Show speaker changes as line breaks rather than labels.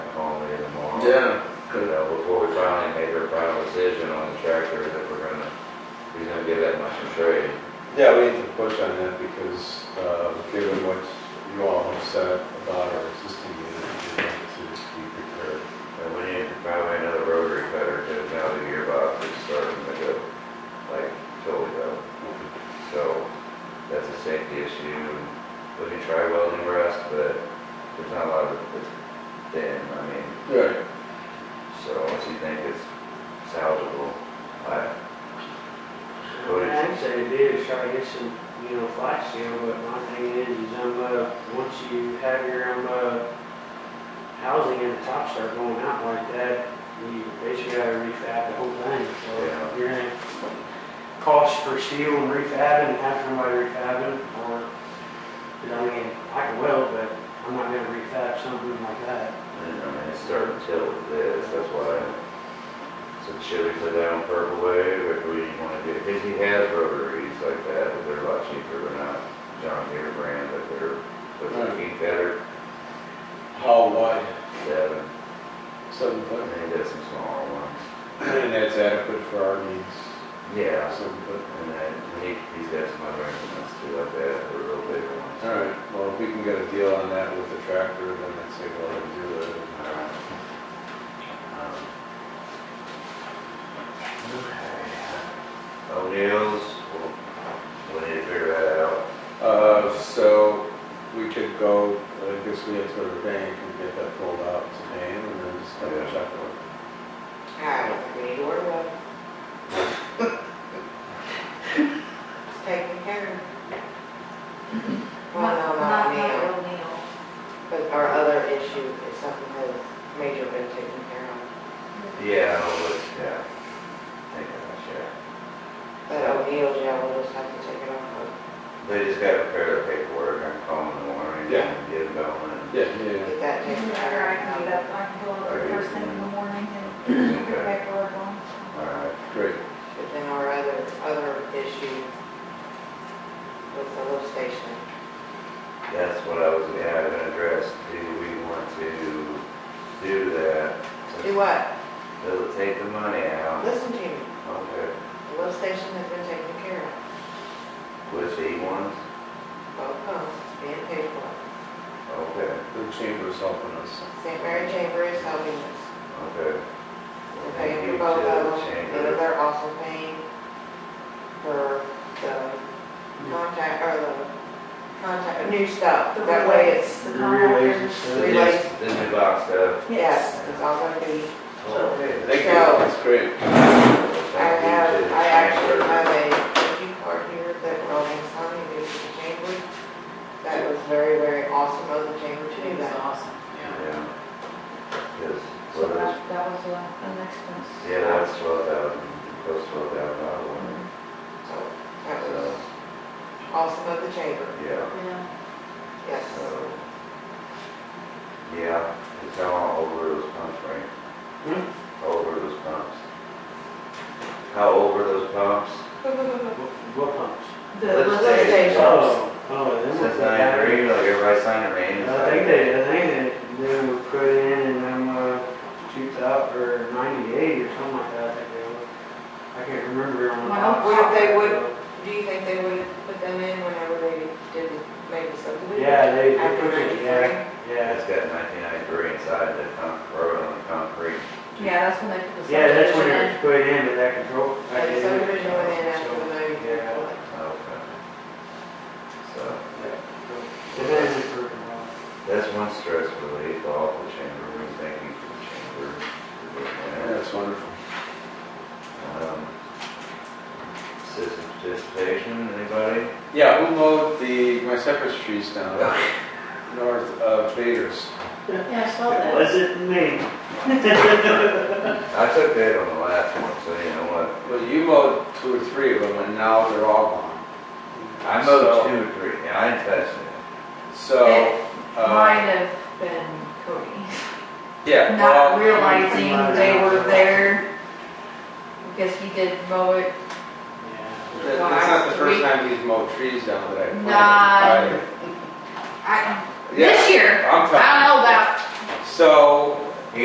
uh, character that we're gonna, he's gonna give that much in trade.
Yeah, we need to push on that because uh, given what you all have said about our existing unit, we need to be prepared.
And we need probably another rotary cutter, because now the gearbox is starting to go, like, totally go. So, that's a safety issue, we can try welding rust, but there's not a lot of, it's thin, I mean,
Right.
so unless you think it's salvageable, I, Well, it's-
I'd say it is, try to get some, you know, flash seal, but my thing is, is I'm, uh, once you have your, um, uh, housing and the top start going out like that, you basically gotta refab the whole thing,
Yeah.
so you're gonna cost for steel and refabbing, and have somebody refabbing, or, 'cause I mean, I can weld, but I'm not gonna refab something like that.
I mean, it's starting to tilt with this, that's why. So should we put that on purple wave, or do we wanna do, because he has rotaries like that, but they're a lot cheaper, they're not John Deere brand, but they're, but they're
Right.
keep better,
How wide?
seven,
Seven
and
foot.
then he does some smaller ones.
And that's adequate for our needs.
Yeah,
Seven foot.
and then he, he's got some other instruments too like that, they're real big ones.
All right, well, if we can get a deal on that with the tractor, then I'd say, well, let's do it.
Alright. Um, okay. O'Neill's, we'll- we need to figure that out.
Uh, so we could go, I guess we have to go to the bank and get that pulled out today and then just have a check on it.
I don't think we need to order one. It's taken care of. Well, no, not
Not,
Neil,
not O'Neill.
but our other issue is something that has major been taken care of.
Yeah, I'll look, yeah. Thank you, yeah.
But O'Neill's, yeah, we'll just have to take it off of,
They just gotta prepare the paperwork, I'm calling in the morning,
Yeah.
and get it going.
Yeah, yeah,
get that taken
Whenever I can get
care
up, I can go over first thing in the morning
Okay.
and get back to work on.
Alright,
yeah, great.
of. But then our other, other issue with the lift station,
that's what I was, yeah, I've been addressed, do we want to do that?
do what?
Does it take the money out?
Listen to me,
Okay,
the lift station has been taken care of,
with the ones,
both pumps being paid for.
okay,
The chamber's helping us.
St. Mary Chamber is helping us.
okay. Well,
Okay,
thank
for
you
both
to
of
the
them,
chamber.
and they're also paying for the contact, or the contact, new stuff,
The
that way
relays,
it's,
The
relays and
contractors.
stuff.
The
Relays.
new- The new box stuff.
yes, it's all gonna be,
Okay.
Thank you,
So-
that's great.
I
Thank you to
have,
the
I actually
chamber.
have a thank you card here that Rolling Stone gave to the chamber. That was very, very awesome of the chamber to do that.
awesome.
Yeah. Because,
So
well, that's,
that, that was the, the next one.
yeah, that's twelve thousand, close to twelve thousand dollars.
So, that
So,
was awesome of the chamber,
yeah,
Yeah.
yes.
so, yeah, it's all over those pumps, right?
Hmm?
How Over those pumps. How over those pumps?
uh, What what pumps?
The
Let's
list-
Lift
say-
station,
Oh, oh, them
Since
with the
I ain't
battery.
reading, like everybody signed their name.
I think they, I think they, they were put in in them, uh, two thousand, or ninety-eight or something like that, I think they were. I can't remember on the
Well,
top.
what if they would-
Uh,
do you think they would have put them in whenever they did maybe subdivision?
Yeah, they, they
After
put it, yeah, yeah.
It's got nineteen ninety-three inside the con, or on the concrete.
Yeah, that's when they put the.
Yeah, that's when
subdivision
it was
in.
put in, but that control. that
Like
didn't-
subdivision went in after the
so,
movie.
Yeah.
Okay. So.
yeah. It hasn't proven wrong.
That's one stress relief, off the chamber, we thank you for the chamber. for doing
That's wonderful.
that. Um, Citizen participation, anybody?
Yeah, who mowed the, my cypress trees down north of Vader's?
Yeah, I saw
It
that.
wasn't me.
I took that on the last one, so you know what?
Well, you mowed two or three of them and now they're all gone.
I mowed two or three, and I didn't touch it.
So,
Might
uh,
have been Cody.
yeah. well,
Not realizing they were there because he did mow it.
Yeah.
That- That's not the first time he's mowed trees down that I planted.
Nah. I,
Yeah,
this year, I
I'm
don't know
telling
about
you. So